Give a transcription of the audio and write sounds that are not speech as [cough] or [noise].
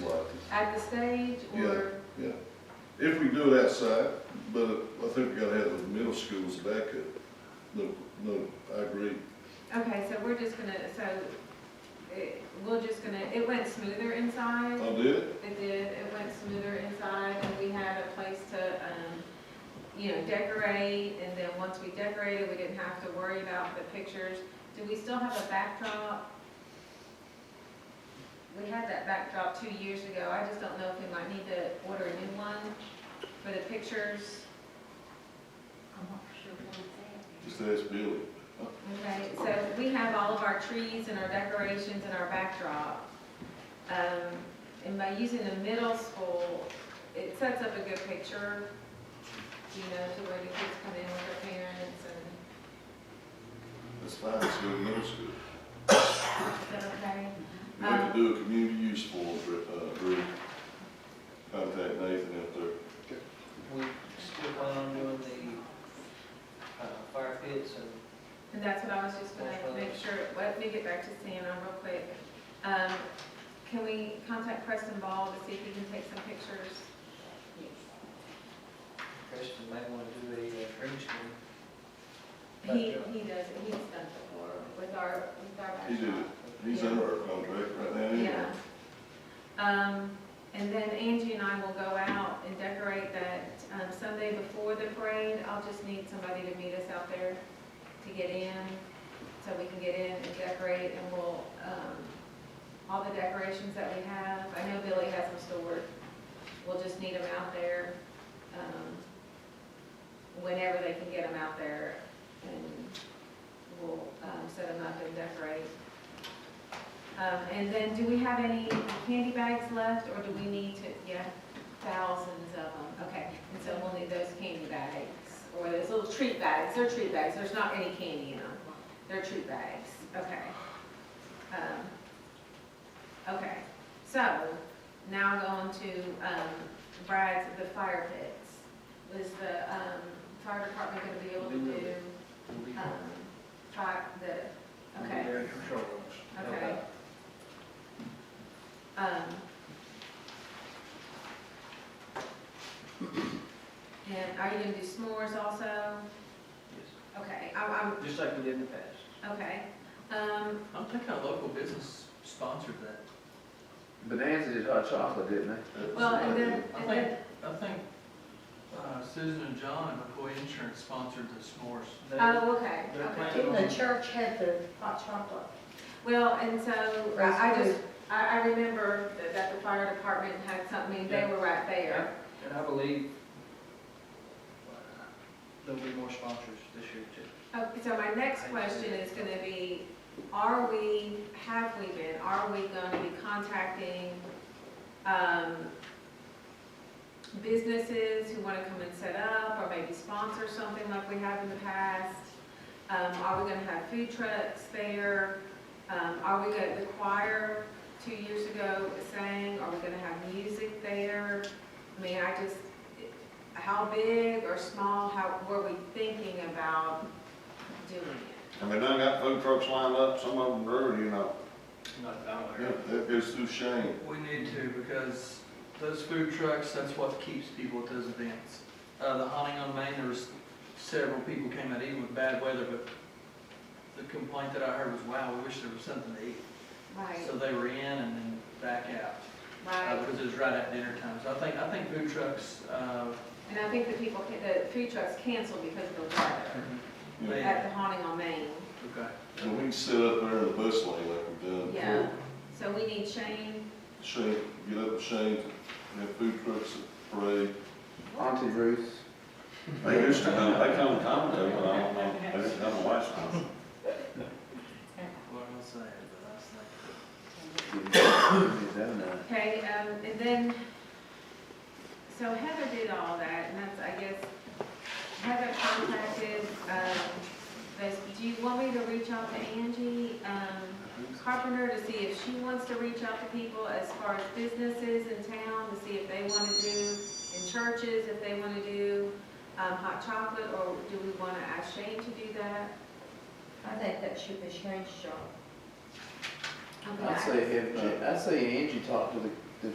at the stage or? Yeah, if we do it outside, but I think we gotta have the middle schools back up. No, no, I agree. Okay, so we're just gonna, so it, we're just gonna, it went smoother inside. I'll do it. It did, it went smoother inside, and we had a place to, um, you know, decorate, and then once we decorated, we didn't have to worry about the pictures. Do we still have a backdrop? We had that backdrop two years ago, I just don't know if we might need to order a new one for the pictures. I'm not sure what it's Just ask Billy. Okay, so we have all of our trees and our decorations and our backdrop. Um, and by using the middle school, it sets up a good picture, you know, to where the kids come in with their parents and, That's fine, it's good middle school. is that okay? We could do a community use form, uh, group. Contact Nathan out there. We still plan on doing the uh, fire pits and And that's what I was just gonna make sure, let me get back to Santa real quick. Um, can we contact Preston Ball to see if he can take some pictures? Preston may want to do a uh, green screen. He, he does, it. he's done it before with our, with our backdrop. He did it. He's under our contract right now anyway. Yeah. Um, and then Angie and I will go out and decorate that, um, Sunday before the parade. I'll just need somebody to meet us out there to get in, so we can get in and decorate, and we'll, um, all the decorations that we have, I know Billy has them stored. We'll just need them out there, um, whenever they can get them out there, and we'll, um, set them up and decorate. Um, and then, do we have any candy bags left, or do we need to, yeah, thousands of them, okay. And so we'll need those candy bags, or those little treat bags, they're treat bags, there's not any candy in them, they're treat bags, okay. Um, Okay, so, now going to, um, Brad's, the fire pits. Is the, um, fire department gonna be able to do, um, fire, the, okay. Okay. Um. And are you gonna do s'mores also? Yes, Okay, I'm, Just like we did in the past. I'm, okay. Um, I'm thinking a local business sponsored that. Bonanza did hot chocolate, didn't they? That's- well, and then, I and think, then, I think uh, Susan and John, McCoy Insurance sponsored the s'mores. They- oh, okay, They're okay. planning- Didn't the church have the hot chocolate? Well, and so, I I just, I, I remember that- that the fire department had something, they were right there. And I believe uh, there'll be more sponsors this year too. Okay, Oh, so my next question is gonna be, are we, have we been, are we gonna be contacting, um, businesses who wanna come and set up, or maybe sponsor something like we have in the past? Um, are we gonna have food trucks there? Um, are we gonna, the choir two years ago sang, are we gonna have music there? I mean, I just, how big or small, how, were we thinking about doing it? I mean, I got food trucks lined up, some of them brewing, you know. Not down Yeah, that goes through Shane. We need to, because those food trucks, that's what keeps people at those events. Uh, the hunting on Main, there was several people came out eating with bad weather, but the complaint that I heard was, wow, we wish there was something to eat. Right, So they were in and then back out, uh, right. because it was right at dinner time. So I think, I think food trucks, uh, And I think the people, ca- the food trucks canceled because of the weather they, at the haunting on Main. okay. And we can sit up there in the bus lane like we've done Yeah. before. So we need Shane, Shane, get up with Shane, have food trucks at parade. Auntie Ruth. They used to come, they come come to, but I don't know, they didn't come last time. What was I saying, but I was like, [coughs] Well, okay, um, and then, so Heather did all that, and that's, I guess, Heather contacted, um, this, do you want me to reach out to Angie, um, Carpenter to see if she wants to reach out to people as far as businesses in town, to see if they want to do, in churches, if they want to do um, hot chocolate, or do we want to ask Shane to do that? I think that should be Sharon's job. I'd say, have- I'd say Angie talked to the